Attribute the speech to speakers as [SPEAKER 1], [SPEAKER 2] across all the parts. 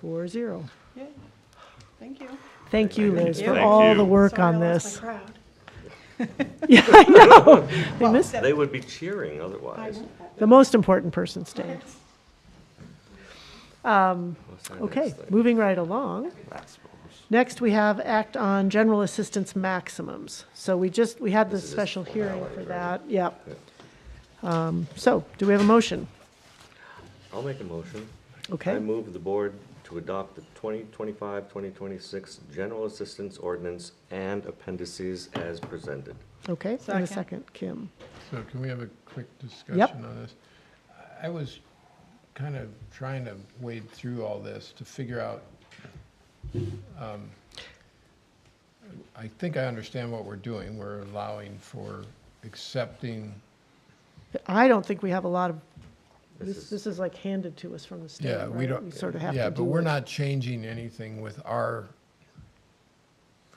[SPEAKER 1] Four zero.
[SPEAKER 2] Yay. Thank you.
[SPEAKER 1] Thank you,
[SPEAKER 3] Thank
[SPEAKER 1] Liz,
[SPEAKER 3] you.
[SPEAKER 1] for
[SPEAKER 3] Thank
[SPEAKER 1] all the
[SPEAKER 3] you.
[SPEAKER 1] work
[SPEAKER 2] Sorry,
[SPEAKER 1] on
[SPEAKER 2] I lost
[SPEAKER 1] this.
[SPEAKER 2] my crowd.
[SPEAKER 1] Yeah, I know. They missed,
[SPEAKER 3] They would be cheering otherwise.
[SPEAKER 1] the most important person stayed. Um,
[SPEAKER 3] What's our
[SPEAKER 1] Okay,
[SPEAKER 3] next thing?
[SPEAKER 1] moving right along. Next, we have Act on General Assistance Maximums. So we just, we had this
[SPEAKER 3] This is
[SPEAKER 1] special hearing
[SPEAKER 3] formality,
[SPEAKER 1] for
[SPEAKER 3] right?
[SPEAKER 1] that, yep. Um, So, do we have a motion?
[SPEAKER 3] I'll make a motion. I
[SPEAKER 1] Okay.
[SPEAKER 3] move the board to adopt the 2025, 2026 General Assistance Ordinance and appendices as presented.
[SPEAKER 1] Okay, and a
[SPEAKER 2] Second.
[SPEAKER 1] second, Kim.
[SPEAKER 4] So can we have a quick discussion on this? I was kind of trying to wade through all this to figure out, um, I think I understand what we're doing. We're allowing for accepting,
[SPEAKER 1] I don't think we have a lot of,
[SPEAKER 3] This
[SPEAKER 1] this,
[SPEAKER 3] is-
[SPEAKER 1] this is like handed to us from the state,
[SPEAKER 4] yeah, we
[SPEAKER 1] right?
[SPEAKER 4] don't.
[SPEAKER 1] We sort of have to
[SPEAKER 4] Yeah, but
[SPEAKER 1] do
[SPEAKER 4] we're
[SPEAKER 1] it.
[SPEAKER 4] not changing anything with our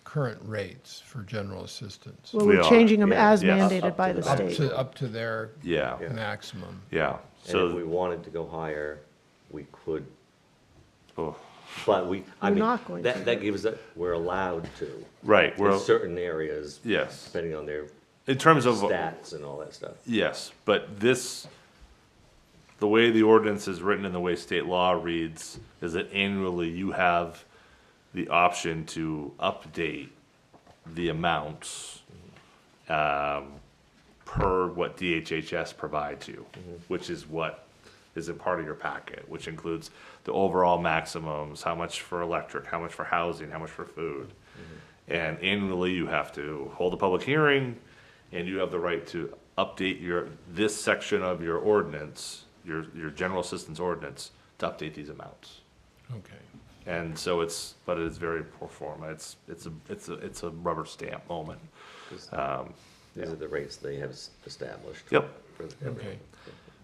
[SPEAKER 4] current rates for general assistance.
[SPEAKER 1] Well,
[SPEAKER 5] We
[SPEAKER 1] we're
[SPEAKER 5] are,
[SPEAKER 1] changing them
[SPEAKER 5] yeah,
[SPEAKER 1] as
[SPEAKER 5] yes.
[SPEAKER 1] mandated by
[SPEAKER 3] Up
[SPEAKER 1] the
[SPEAKER 3] to
[SPEAKER 4] Up
[SPEAKER 3] that.
[SPEAKER 1] state.
[SPEAKER 4] to, up to their
[SPEAKER 5] Yeah,
[SPEAKER 3] Yeah.
[SPEAKER 4] maximum.
[SPEAKER 5] yeah.
[SPEAKER 3] And if we
[SPEAKER 5] So,
[SPEAKER 3] wanted to go higher, we could,
[SPEAKER 5] oh,
[SPEAKER 3] but we, I
[SPEAKER 1] We're
[SPEAKER 3] mean,
[SPEAKER 1] not going to.
[SPEAKER 3] that, that gives, us- we're allowed to.
[SPEAKER 5] right,
[SPEAKER 3] In
[SPEAKER 5] we're,
[SPEAKER 3] certain areas,
[SPEAKER 5] yes.
[SPEAKER 3] depending on their
[SPEAKER 5] In terms of,
[SPEAKER 3] stats and all that stuff.
[SPEAKER 5] yes, but this, the way the ordinance is written and the way state law reads is that annually you have the option to update the amounts um, per what DHHS provides you,
[SPEAKER 3] Mm-hmm.
[SPEAKER 5] which is what is a part of your packet, which includes the overall maximums, how much for electric, how much for housing, how much for food.
[SPEAKER 3] Mm-hmm.
[SPEAKER 5] And annually, you have to hold a public hearing, and you have the right to update your, this section of your ordinance, your, your general assistance ordinance, to update these amounts.
[SPEAKER 4] Okay.
[SPEAKER 5] And so it's, but it is very pro forma. It's, it's a, it's a, it's a rubber stamp moment.
[SPEAKER 3] 'cause
[SPEAKER 5] Um,
[SPEAKER 3] These are the rates they have s- established.
[SPEAKER 5] Yep.
[SPEAKER 3] for
[SPEAKER 4] Okay.
[SPEAKER 3] everyone.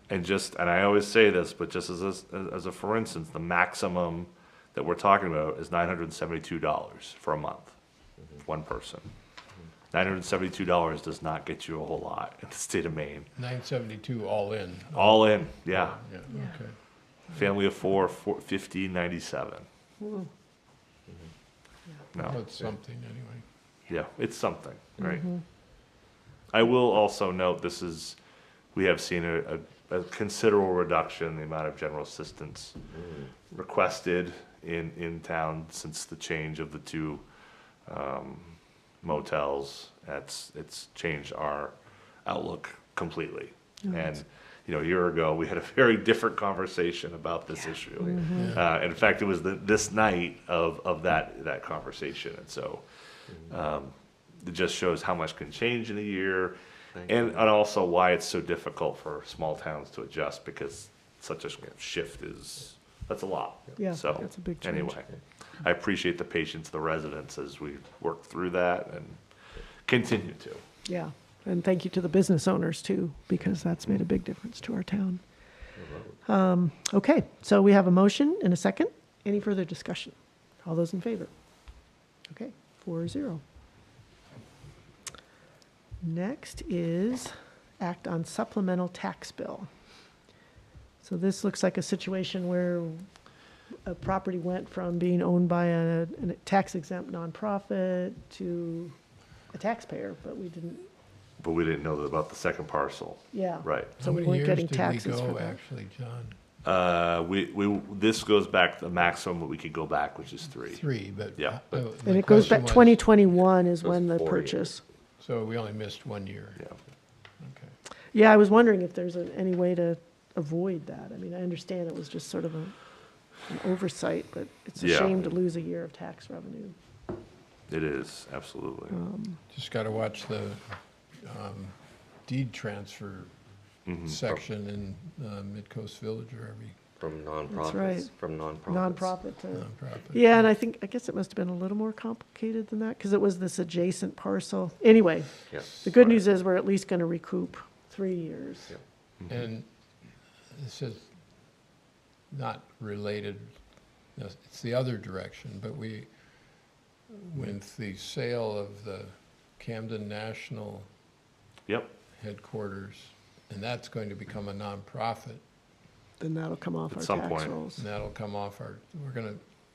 [SPEAKER 5] and just, and I always say this, but just as, a- as a for instance, the maximum that we're talking about is nine hundred and seventy-two dollars for a month, one person. Nine hundred and seventy-two dollars does not get you a whole lot in the state of Maine.
[SPEAKER 4] Nine seventy-two all in.
[SPEAKER 5] All in, yeah.
[SPEAKER 4] Yeah,
[SPEAKER 2] Yeah.
[SPEAKER 4] okay.
[SPEAKER 5] Family of four, four, fifteen ninety-seven. Mm-hmm. No.
[SPEAKER 4] Well, it's something anyway.
[SPEAKER 5] Yeah, it's something, right? I will also note this is, we have seen a, a, a considerable reduction in the amount of general assistance requested in, in town since the change of the two um, motels. That's, it's changed our outlook completely. And, you know, a year ago, we had a very different conversation about this issue. Uh, and in fact, it was the, this night of, of that, that conversation. And so, um, it just shows how much can change in a year
[SPEAKER 3] Thank
[SPEAKER 5] and, and also why it's so difficult for small towns to adjust because such a sh- shift is, that's a lot.
[SPEAKER 1] Yeah,
[SPEAKER 5] So,
[SPEAKER 1] that's a big change.
[SPEAKER 5] Anyway, I appreciate the patience of the residents as we work through that and continue to.
[SPEAKER 1] Yeah, and thank you to the business owners too, because that's made a big difference to our town. Um, Okay, so we have a motion and a second. Any further discussion? All those in favor? Okay, four zero. Next is act on supplemental tax bill. So this looks like a situation where a property went from being owned by a an tax exempt nonprofit to a taxpayer, but we didn't
[SPEAKER 5] But we didn't know about the second parcel,
[SPEAKER 1] yeah.
[SPEAKER 5] right?
[SPEAKER 1] So we
[SPEAKER 4] How many
[SPEAKER 1] weren't
[SPEAKER 4] years
[SPEAKER 1] getting
[SPEAKER 4] did we
[SPEAKER 1] taxes
[SPEAKER 4] go,
[SPEAKER 1] for that.
[SPEAKER 4] Actually, John,
[SPEAKER 5] Uh, we, we, this goes back, the maximum that we could go back, which is three.
[SPEAKER 4] three, but.
[SPEAKER 5] Yeah, but-
[SPEAKER 4] uh, the
[SPEAKER 1] And it goes
[SPEAKER 4] question
[SPEAKER 1] back,
[SPEAKER 4] was-
[SPEAKER 1] 2021 is
[SPEAKER 3] Those
[SPEAKER 1] when the
[SPEAKER 3] four
[SPEAKER 1] purchase.
[SPEAKER 4] So we only missed one year.
[SPEAKER 5] Yeah.
[SPEAKER 4] Okay.
[SPEAKER 1] Yeah, I was wondering if there's a- any way to avoid that. I mean, I understand it was just sort of a, an oversight, but it's a
[SPEAKER 5] Yeah.
[SPEAKER 1] shame to lose a year of tax revenue.
[SPEAKER 5] It is, absolutely.
[SPEAKER 4] Just got to watch the um, deed transfer
[SPEAKER 5] Mm-hmm. Oh.
[SPEAKER 4] section in uh, Midcoast Village or every
[SPEAKER 3] From
[SPEAKER 1] right.
[SPEAKER 3] nonprofits, from nonprofits.
[SPEAKER 1] Nonprofit to,
[SPEAKER 4] nonprofit.
[SPEAKER 1] yeah, and I think, I guess it must have been a little more complicated than that, because it was this adjacent parcel. Anyway,
[SPEAKER 3] Yeah.
[SPEAKER 1] the good news is we're at least going to recoup three years.
[SPEAKER 3] Yeah.
[SPEAKER 4] And this is not related, no, it's the other direction, but we, with the sale of the Camden National
[SPEAKER 5] Yep,
[SPEAKER 4] headquarters, and that's going to become a nonprofit,
[SPEAKER 1] Then that'll come off
[SPEAKER 5] At
[SPEAKER 1] our
[SPEAKER 5] some
[SPEAKER 1] tax
[SPEAKER 5] point.
[SPEAKER 1] rolls.
[SPEAKER 4] and that'll come off our, we're gonna